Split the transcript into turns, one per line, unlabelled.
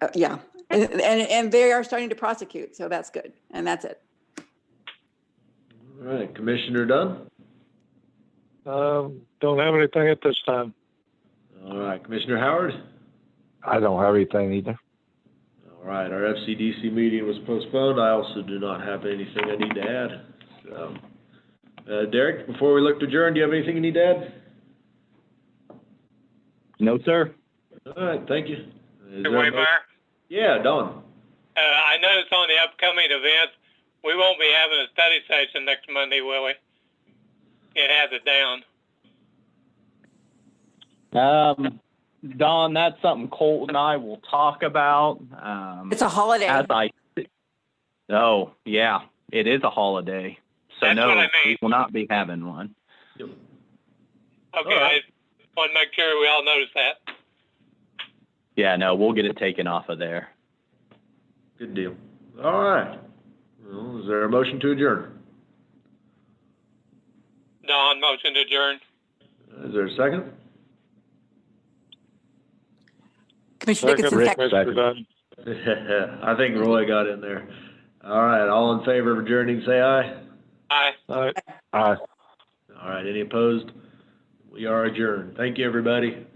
Uh, Yeah, and, and, and they are starting to prosecute, so that's good. And that's it.
All right, Commissioner Dunn?
Um, don't have anything at this time.
All right, Commissioner Howard?
I don't have anything either.
All right, our FCDC meeting was postponed. I also do not have anything I need to add. So, uh, Derek, before we look to adjourn, do you have anything you need to add?
No, sir.
All right, thank you. Is
Mr.
there a mo-
Waymeyer,
Yeah, Don.
uh, I noticed on the upcoming events, we won't be having a study session next Monday, will we? It has it down.
Um, Don, that's something Colt and I will talk about. Um,
It's a holiday.
as I, oh yeah, it is a holiday, so
That's
no,
what I
we
mean.
will not be having one.
Okay,
All
I
right.
just want to make sure we all notice that.
Yeah, no, we'll get it taken off of there.
Good deal. All right. Well, is there a motion to adjourn?
Don, motion to adjourn.
Is there a second?
Commissioner
Second,
Dickinson, second.
Mr. Dunn.
I think Roy got in there. All right, all in favor of adjourning, say aye.
Aye.
All right.
Uh,
All right, any opposed? We are adjourned. Thank you, everybody.